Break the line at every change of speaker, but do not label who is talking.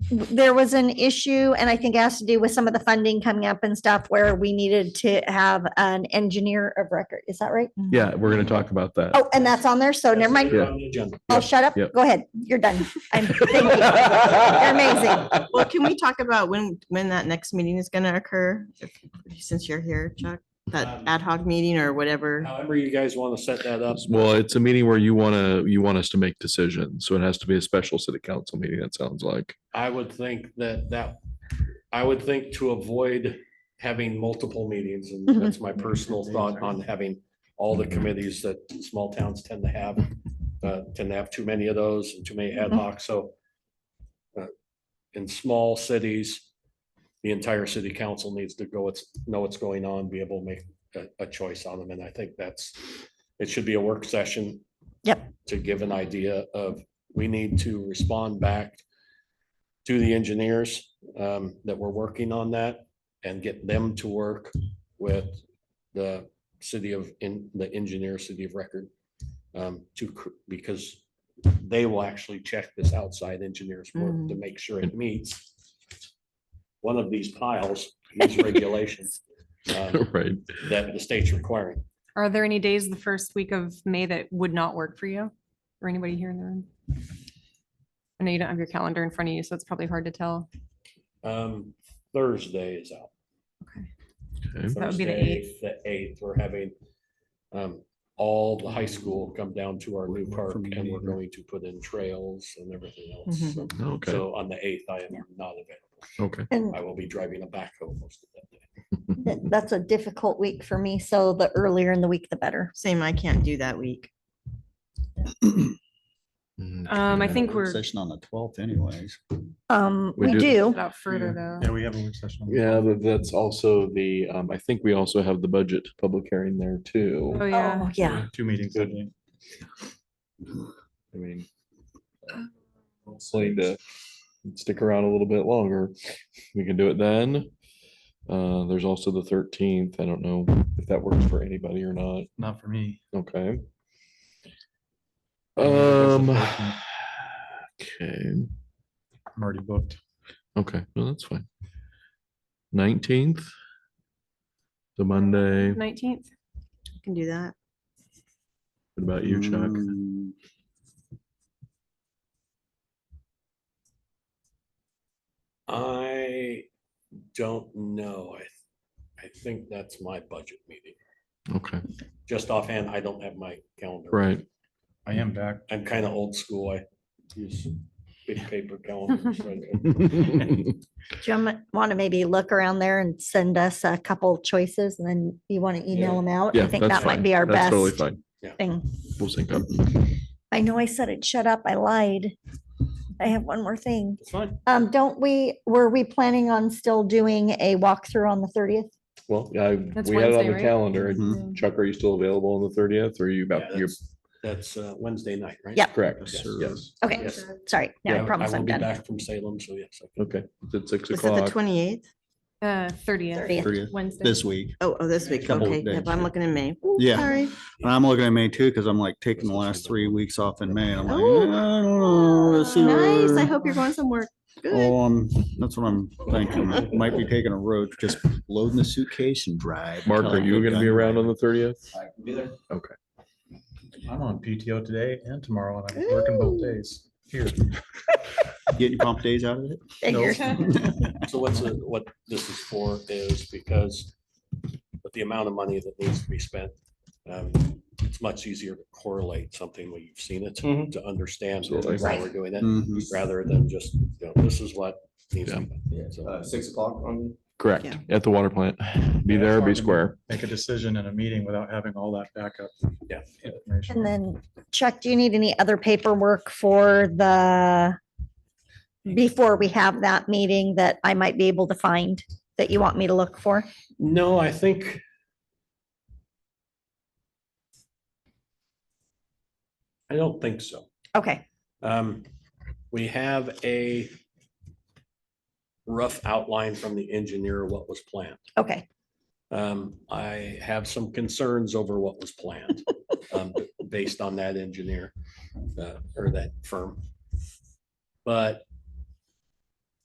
there was an issue and I think it has to do with some of the funding coming up and stuff where we needed to have an engineer of record. Is that right?
Yeah, we're going to talk about that.
Oh, and that's on there. So never mind.
Yeah.
Oh, shut up.
Yeah.
Go ahead. You're done. I'm, thank you. You're amazing.
Mm-hmm. Well, can we talk about when, when that next meeting is gonna occur? If- Since you're here, Chuck, that
Um,
ad hoc meeting or whatever.
However you guys want to set that up.
Well, it's a meeting where you want to, you want us to make decisions. So it has to be a special city council meeting, it sounds like.
I would think that that, I would think to avoid having multiple meetings, and
Mhm.
that's my personal thought on having all the committees that small towns tend to have, uh, tend to have too many of those and too many
Mm-hmm.
ad hoc, so uh, in small cities, the entire city council needs to go, it's, know what's going on, be able to make a, a choice on them, and I think that's, it should be a work session.
Yep.
To give an idea of, we need to respond back to the engineers um, that were working on that and get them to work with the city of, in the engineer, city of record. um, To, cr- because they will actually check this outside engineer's work to make sure it meets one of these piles, these regulations um,
Right.
that the state's requiring.
Are there any days the first week of May that would not work for you or anybody here in the room? I know you don't have your calendar in front of you, so it's probably hard to tell.
Um, Thursday is out.
Okay.
Okay.
that would be the
Thursday,
eighth.
The eighth, we're having um, all the high school come down to our new park and we're going to put in trails and everything
Mm-hmm.
else. So-
Okay,
So on the eighth, I am not available.
okay.
And
I will be driving a backhoe most of that day.
th- that's a difficult week for me. So the earlier in the week, the better.
Same, I can't do that week.
Um, I
Yeah,
think
work
we're
Session on the twelfth anyways.
Um,
We
we
do.
do.
out further though.
we have a work session.
Yeah, but that's also the, um, I think we also have the budget public hearing there too.
Oh, yeah.
Oh, yeah.
Two meetings.
Good. I mean, hopefully to stick around a little bit longer. We can do it then. Uh, there's also the thirteenth. I don't know if that works for anybody or not.
Not for me.
Okay.
Yeah, that's the
Um.
14th.
Okay,
I'm already booked.
okay, no, that's fine. Nineteenth. The Monday. What
Nineteenth.
I Can do that.
about you, Chuck?
Mm,
I don't know. I, I think that's my budget meeting.
Okay,
Just offhand, I don't have my calendar.
right.
I am back.
I'm kind of old school. I use big paper calendars. right?
Do you want to maybe look around there and send us a couple choices and then you want to email
Yeah.
them out?
Yeah,
I think
that's
that might
fine.
be our best
That's Totally fine.
thing.
We'll sync up.
I know I said it, shut up, I lied. I have one more thing.
It's fine.
Um, don't we, were we planning on still doing a walkthrough on the thirtieth?
Well, yeah, I-
That's
we had it on
Wednesday,
the
right?
calendar.
Mhm.
Chuck, are you still available on the thirtieth? Or are you
Yeah,
about, you're
That's that's, uh, Wednesday night, right?
Yep.
correct?
Yes.
Yes,
Okay,
Yes.
sorry,
Yeah,
now I
will-
promise I'm
will be
done.
Back from Salem, so yes. I can-
okay. It's at six
Is it the
o'clock.
twenty-eighth?
Uh, thirtieth,
30th.
30th,
Wednesday.
This week.
Oh, oh, this week.
Couple of
Okay, yep,
days,
I'm
yeah.
looking in May. Ooh,
Yeah.
Sorry.
And I'm looking at May too, because I'm like taking the last three weeks off in May. and I'm like,
Oh.
"Eh, I don't know. Let's see
Nice. I
where-"
hope you're going somewhere good.
Oh, um, that's what I'm thinking. Might be taking a road, just loading the suitcase and drive.
Mark,
until
are
I
you
get
gonna be
done.
around on the thirtieth?
I'm on PTO today and tomorrow and I'm working both days here.
Getting comp days out of it?
Figures.
So what's, the- what this is for is because with the amount of money that needs to be spent, um, it's much easier to correlate something when you've seen it
Mhm.
to understand
Absolutely.
why we're doing it,
Mhm.
rather than just, you know, this is what needs to be done. So-
six o'clock on.
Correct,
Yeah.
at the water plant. Be
Yeah,
there,
so I
be
can-
square.
Make a decision in a meeting without having all that backup.
Yeah.
information.
And then Chuck, do you need any other paperwork for the, before we have that meeting that I might be able to find that you want me to look for?
No, I think. I don't think so.
Okay,
Um, we have a rough outline from the engineer of what was planned.
okay,
Um, I have some concerns over what was planned, um, based on that engineer, uh, or that firm. But